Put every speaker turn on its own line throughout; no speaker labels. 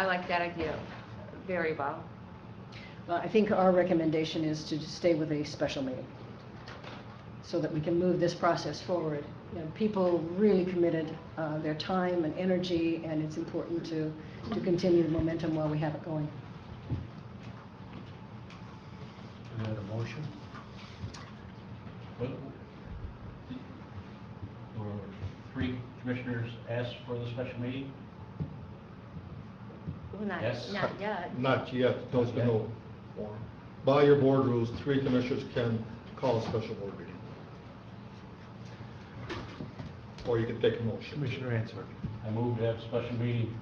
I like that idea very well.
Uh, I think our recommendation is to stay with a special meeting, so that we can move this process forward. You know, people really committed uh, their time and energy, and it's important to, to continue the momentum while we have it going.
Is that a motion?
Well, There were three commissioners asked for the special meeting?
Well, Not,
Yes.
not yet.
Not yet, there's been no form. By your board rules, three commissioners can call a special board meeting. Or you can take a motion.
Commissioner Answer.
I moved to have a special meeting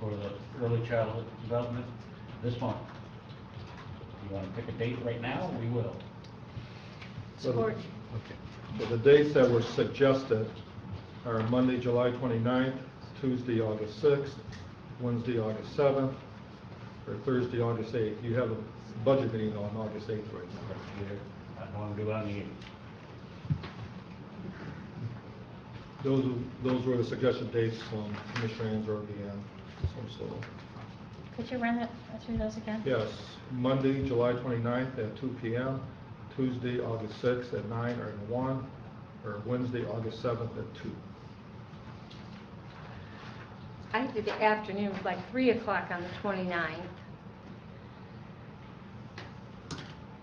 for the early childhood development this month. You want to pick a date right now, we will.
Support.
Okay.
So the dates that were suggested are Monday, July 29th, Tuesday, August 6th, Wednesday, August 7th, or Thursday, August 8th. You have a budget meeting on August 8th right now.
I don't want to do it on the eighth.
Those, those were the suggested dates from Commissioner Ansberg and so so.
Could you run it through those again?
Yes, Monday, July 29th at 2 PM, Tuesday, August 6th at 9 or at 1, or Wednesday, August 7th at 2.
I did the afternoon, like 3 o'clock on the 29th.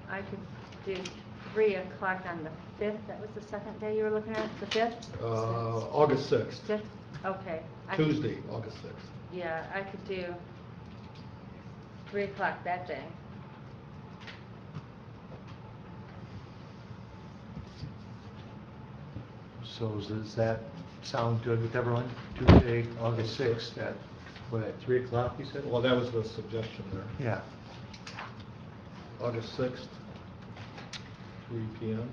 I could do 3 o'clock on the 5th, that was the second day you were looking at, the 5th?
Uh, August 6th,
5th, okay. I could-
Tuesday, August 6th.
Yeah, I could do 3 o'clock that day.
So does that sound good with everyone? Tuesday, August 6th at, what, at 3 o'clock, you said?
Well, that was the suggestion there.
Yeah.
August 6th, 3 PM.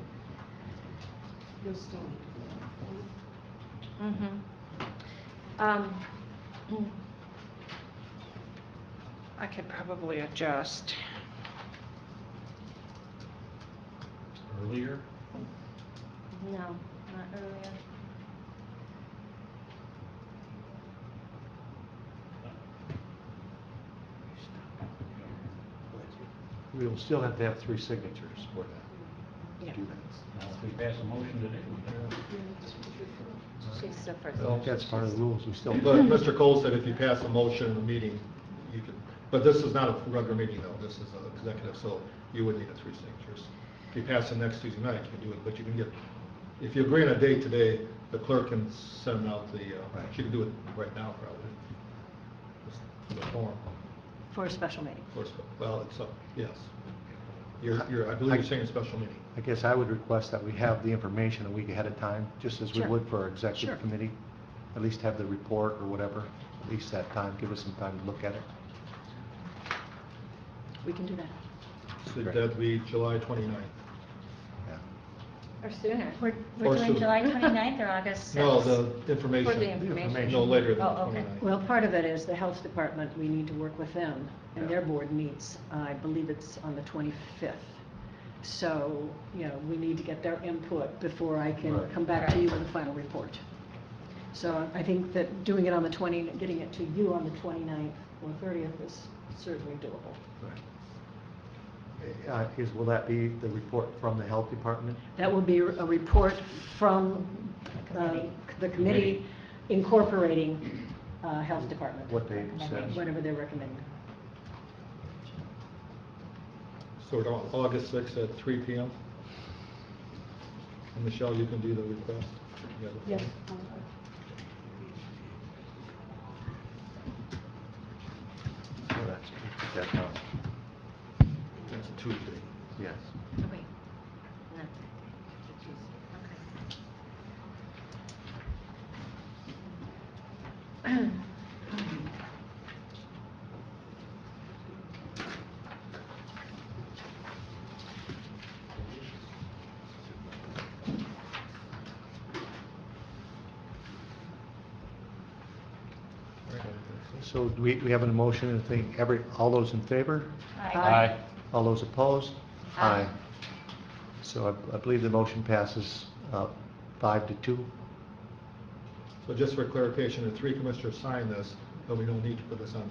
Mhm. Um,
I could probably adjust.
Earlier?
No, not earlier.
We will still have to have three signatures for that. to
Yeah.
Do that.
Now, if we pass a motion today, we
She's the first.
I think that's part of the rules, we still.
But Mr. Cole said if you pass a motion in a meeting, you can, but this is not a regular meeting though, this is an executive, so you would need a three signatures. If you pass it next Tuesday night, you can do it, but you can get, if you agree on a date today, the clerk can send out the, uh, she can do it right now probably. Just The form,
For a special meeting.
of course, well, it's up, yes. You're, you're, I believe you're saying a special meeting.
I guess I would request that we have the information a week ahead of time, just as we
Sure.
would for our
Sure.
executive committee. At least have the report or whatever, at least that time, give us some time to look at it.
We can do that.
So that'd be July 29th.
Yeah.
Or sooner.
We're,
Or
we're doing
sooner.
July 29th or August 6th?
No, the
For the
information,
information.
information.
no later than the
Oh, okay.
29th.
Well, part of it is the health department, we need to work with them, and their
Yeah.
board meets, I believe it's on the 25th. So, you know, we need to get their input before I can
Right.
come back to you with a final report. So I think that doing it on the 20, getting it to you on the 29th or 30th is certainly doable.
Uh, Is, will that be the report from the health department?
That will be a report from uh, the committee incorporating uh, health department,
What they said?
whatever they're recommending.
So we're going August 6th at 3 PM. And Michelle, you can do the request. You got the
Yes.
form.
So that's, that's how,
That's Tuesday.
yes.
Wait, no. Okay.
So do we, we have a motion and thing, every, all those in favor?
Aye.
All those opposed?
Aye.
So I- I believe the motion passes uh, five to two.
So just for clarification, the three commissioners signed this, but we don't need to put this on